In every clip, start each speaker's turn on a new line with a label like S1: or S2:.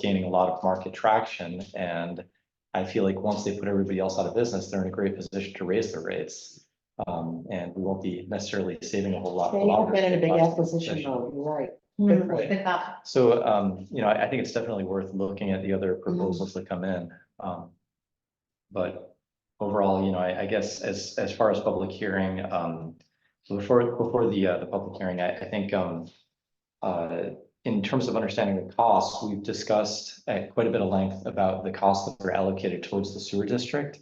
S1: gaining a lot of market traction and I feel like once they put everybody else out of business, they're in a great position to raise their rates. Um, and we won't be necessarily saving a whole lot.
S2: They have been in a big acquisition
S1: Session.
S2: mode, you're right.
S3: Mm,
S1: Right.
S3: Good thought.
S1: So, um, you know, I, I think it's definitely worth looking at the other proposals that come in. Um, but overall, you know, I, I guess as, as far as public hearing, um, before, before the, uh, the public hearing, I, I think, um, uh, in terms of understanding the costs, we've discussed at quite a bit of length about the costs that are allocated towards the sewer district.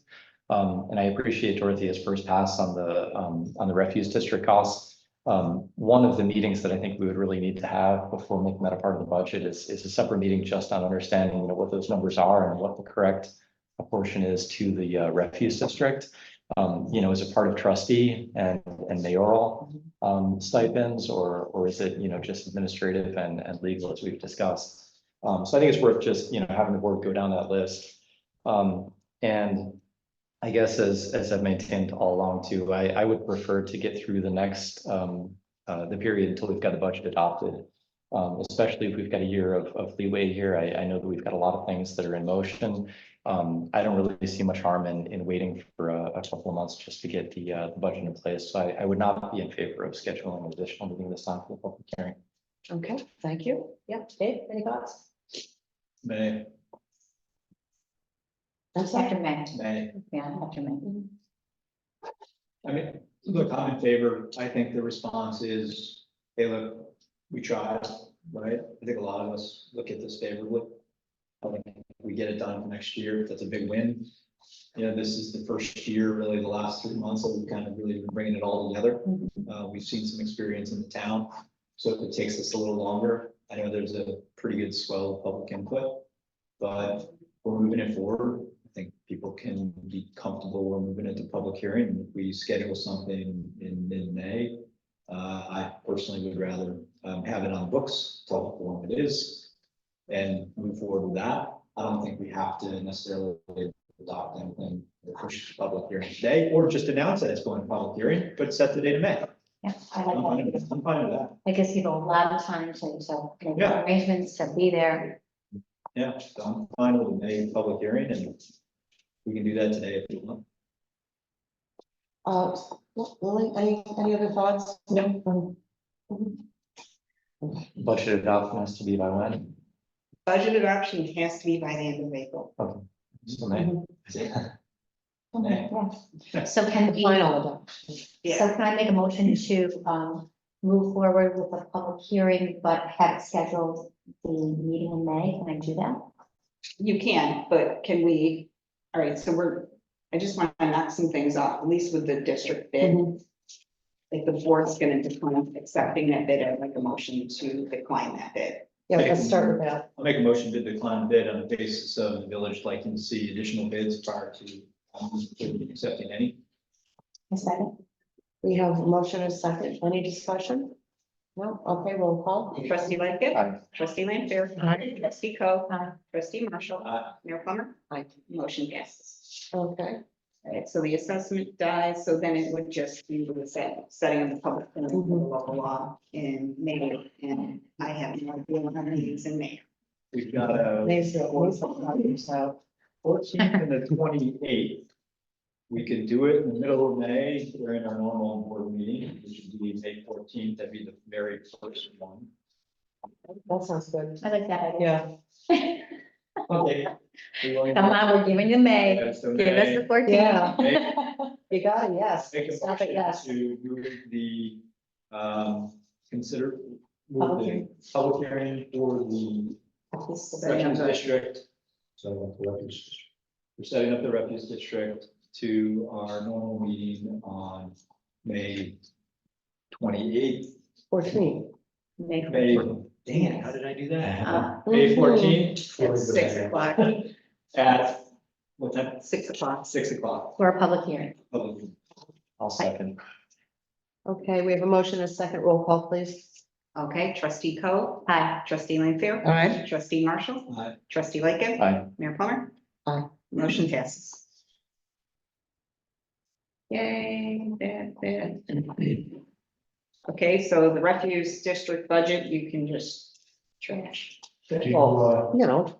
S1: Um, and I appreciate Dorothea's first pass on the, um, on the refuse district costs. Um, one of the meetings that I think we would really need to have before making that a part of the budget is, is a separate meeting just on understanding, you know, what those numbers are and what the correct proportion is to the uh, refuse district. Um, you know, is it part of trustee and, and mayoral, um, stipends, or, or is it, you know, just administrative and, and legal as we've discussed? Um, so I think it's worth just, you know, having the board go down that list. Um, and I guess as, as I've maintained all along too, I, I would prefer to get through the next, um, uh, the period until we've got the budget adopted. Um, especially if we've got a year of, of leeway here. I, I know that we've got a lot of things that are in motion. Um, I don't really see much harm in, in waiting for a, a couple of months just to get the, uh, the budget in place. So I, I would not be in favor of scheduling an additional meeting this time for the public hearing.
S2: Okay, thank you. Yeah, Dave, any thoughts?
S4: May,
S2: I'm sorry.
S3: After May,
S4: may,
S3: yeah, after May.
S2: Mm-hmm.
S4: I mean, look, I'm in favor, I think the response is, hey, look, we tried, right? I think a lot of us look at this favorably. I think we get it done for next year, that's a big win. You know, this is the first year, really, the last three months, that we've kind of really been bringing it all together.
S3: Mhm.
S4: Uh, we've seen some experience in the town, so if it takes us a little longer, I know there's a pretty good swell of public input. But we're moving it forward. I think people can be comfortable we're moving it to public hearing. If we schedule something in mid-May, uh, I personally would rather, um, have it on books, public forum it is, and move forward with that. I don't think we have to necessarily adopt anything, or push to public hearing today, or just announce that it's going to public hearing, but set the date of May.
S3: Yeah, I
S4: I'm fine
S3: like
S4: with
S3: that.
S4: I'm fine with that.
S3: That gives people a lot of time to, to make
S4: Yeah.
S3: arrangements, to be there.
S4: Yeah, so I'm fine with May public hearing and we can do that today if you want.
S2: Uh, Lily, any, any other thoughts? Mm-hmm. No.
S1: Budget adoption has to be by when?
S5: Budget adoption has to be by the end of April.
S1: So May?
S3: Oh my
S4: Yeah.
S3: gosh. So can we, so
S2: Final adoption.
S5: Yeah,
S3: can I make a motion to, um, move forward with a public hearing, but have it scheduled the meeting in May? Can I do that?
S5: you can, but can we, all right, so we're, I just want to knock some things off, at least with the district
S3: Mm-hmm.
S5: bid.
S2: Mhm.
S5: Like the board's gonna decline accepting that bid, I'd like a motion to decline that bid.
S2: Yeah, let's start with that.
S4: I'll make a motion to decline bid on the basis of the village liking to see additional bids prior to um, accepting any.
S3: A second?
S2: We have a motion and a second. Any discussion? No? Okay, roll call.
S5: Trustee Lightfoot.
S1: Aye.
S5: Trustee Lanfair.
S2: Aye.
S5: Trustee Co.
S3: Aye.
S5: Trustee Marshall.
S4: Aye.
S5: Mayor Plummer.
S2: Aye.
S5: Motion passes.
S2: Okay.
S5: All right, so the assessment dies, so then it would just be with the set- setting of the public hearing
S2: Mm-hmm.
S5: for the local law in May. And I have no idea when our meeting's in May.
S4: We've got a
S2: Maybe it was something, so,
S4: fourteenth and a twenty-eighth. We could do it in the middle of May during our normal board meeting, which would be May fourteenth, that'd be the very first one.
S2: That sounds good.
S3: I like that idea.
S2: Yeah.
S4: Okay. We will-
S3: Somehow we're giving you May.
S4: Yeah, so
S3: Give us the
S4: May-
S3: fourteenth.
S4: May-
S2: You got it, yes.
S4: Make a
S2: Stop
S4: motion
S2: it, yes.
S4: to move the, um, consider, move
S2: Public
S4: the
S2: hearing.
S4: public hearing for the
S5: Setting
S4: Refuse
S5: of the-
S4: district. So the refuse. district. We're setting up the refuse district to our normal meeting on May twenty-eighth.
S2: Fourteen.
S3: May
S4: May,
S3: fourteenth.
S4: dang it, how did I do that?
S3: Uh,
S4: May fourteenth
S5: At six o'clock,
S4: at, what time?
S5: six o'clock.
S4: Six o'clock.
S3: For a public hearing.
S4: public meeting.
S1: I'll second.
S2: Okay, we have a motion and a second. Roll call, please.
S5: Okay, trustee Co,
S3: Aye.
S5: trustee Lanfair.
S2: Aye.
S5: Trustee Marshall,
S4: Uh,
S5: trustee Lightgev.
S1: Aye.
S5: Mayor Plummer.
S2: Aye.
S5: Motion passes. Yay, bad, bad. Okay, so the refuse district budget, you can just trash.
S2: You uh, know.